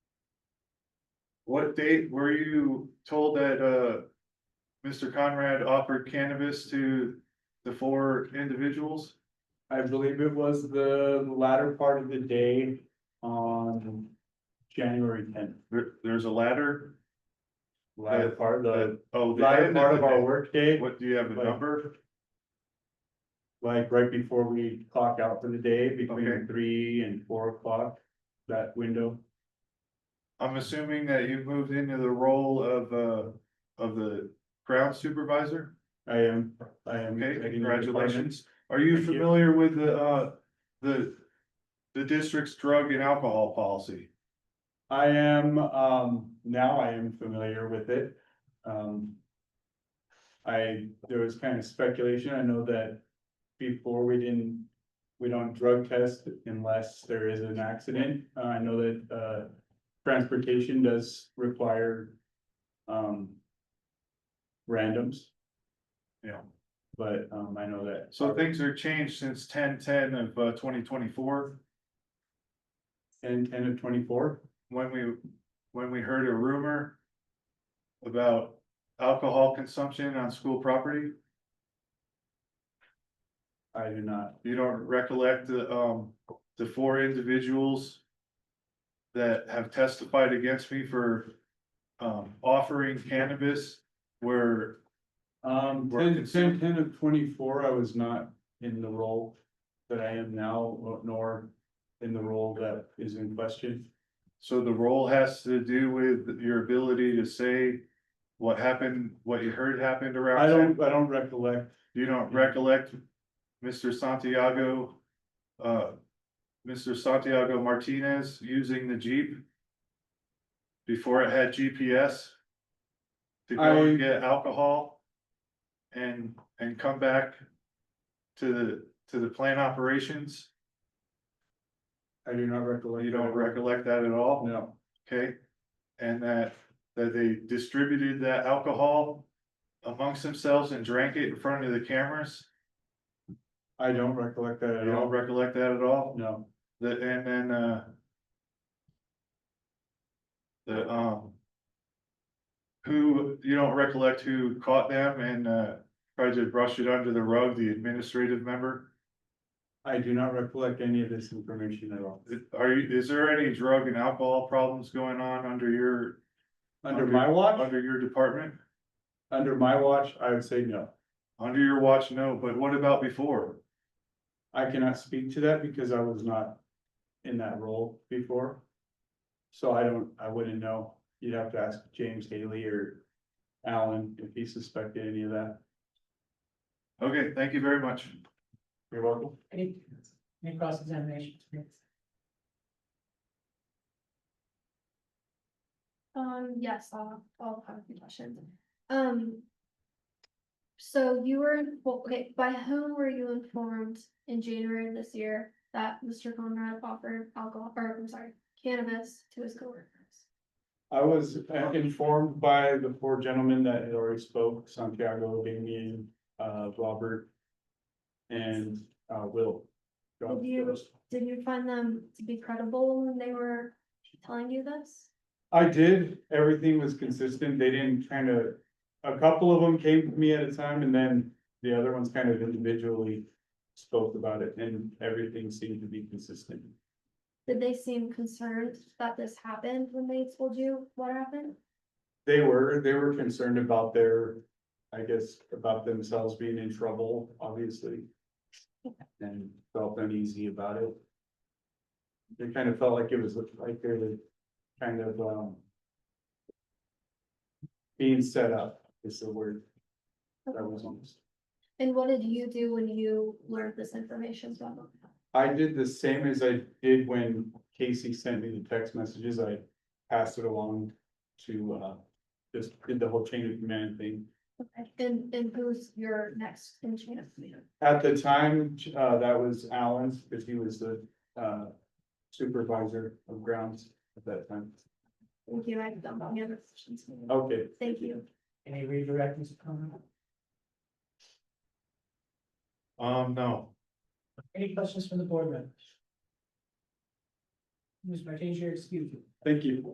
What date were you told that, uh, Mr. Conrad offered cannabis to the four individuals? I believe it was the latter part of the day on January tenth. There, there's a ladder? Latter part, the Oh, the latter end part of the our day. workday, What, do you have a Like- number? like right before we clock out for the day, Okay. between three and four o'clock, that window. I'm assuming that you've moved into the role of, uh, of the ground supervisor? I am, I am. Okay, taking the congratulations. Are you Thank you. familiar with the, uh, the, the district's drug and alcohol policy? I am, um, now I am familiar with it, um. I, there was kind of speculation, I know that before we didn't, we don't drug test unless there is an accident. Uh, I know that, uh, transportation does require, um. Randoms, Yeah. but, um, I know that. So things are changed since ten ten of, uh, twenty twenty-four, And ten of twenty-four, when we, when we heard a rumor about alcohol consumption on school property. I do not, You don't recollect the, um, the four individuals that have testified against me for, um, offering cannabis where Um, Work ten, is- ten, ten of twenty-four, I was not in the role that I am now, uh, nor in the role that is in question. So the role has to do with your ability to say what happened, what you heard happened I around. town? don't, I don't recollect, You don't recollect Mr. Santiago, uh, Mr. Santiago Martinez using the Jeep? Before it had GPS? To go I- and get alcohol? And, and come back to the, to the plant operations? I do not recollect. You don't recollect that at all? No, Okay, and that, that they distributed that alcohol amongst themselves and drank it in front of the cameras? I don't recollect that You at don't all, recollect that at all? no, The, and then, uh. The, um. Who, you don't recollect who caught them and, uh, tried to brush it under the rug, the administrative member? I do not recollect any of this information at all. Are you, is there any drug and alcohol problems going on under your, Under Under- my watch, under your department? under my watch, I would say no. Under your watch, no, but what about before? I cannot speak to that because I was not in that role before. So I don't, I wouldn't know. You'd have to ask James Haley or Alan if he suspected any of that. Okay, thank you very much. You're welcome. Any, any cross examination? Um, yes, I'll, I'll have a few questions. Um. So you were, in- well, okay, by whom were you informed in January of this year that Mr. Conrad offered alcohol, or I'm sorry, cannabis to his coworkers? I was uh, informed by the four gentlemen that had already spoke, Santiago, Damien, uh, Robert. And, uh, Will. Did you- Did you find them to be credible when they were telling you this? I did, everything was consistent, they didn't kind of, a couple of them came to me at a time and then the other ones kind of individually spoke about it and everything seemed to be consistent. Did they seem concerned that this happened when they told you what happened? They were, they were concerned about their, I guess, about themselves being in trouble, obviously. And felt uneasy about it. They kind of felt like it was like they were kind of, um. Being set up is the word that was almost. And what did you do when you learned this information from them? I did the same as I did when Casey sent me the text messages, I passed it along to, uh, just did the whole chain of command thing. Okay, and, and who's your next in chain of command? At the time, uh, that was Alan's, because he was the, uh, supervisor of grounds at that time. Thank you, I've done all the other questions. Okay, Thank you. Any redirections coming up? Um, no, Any questions from the board members? Ms. Martinez, you're excused. thank you.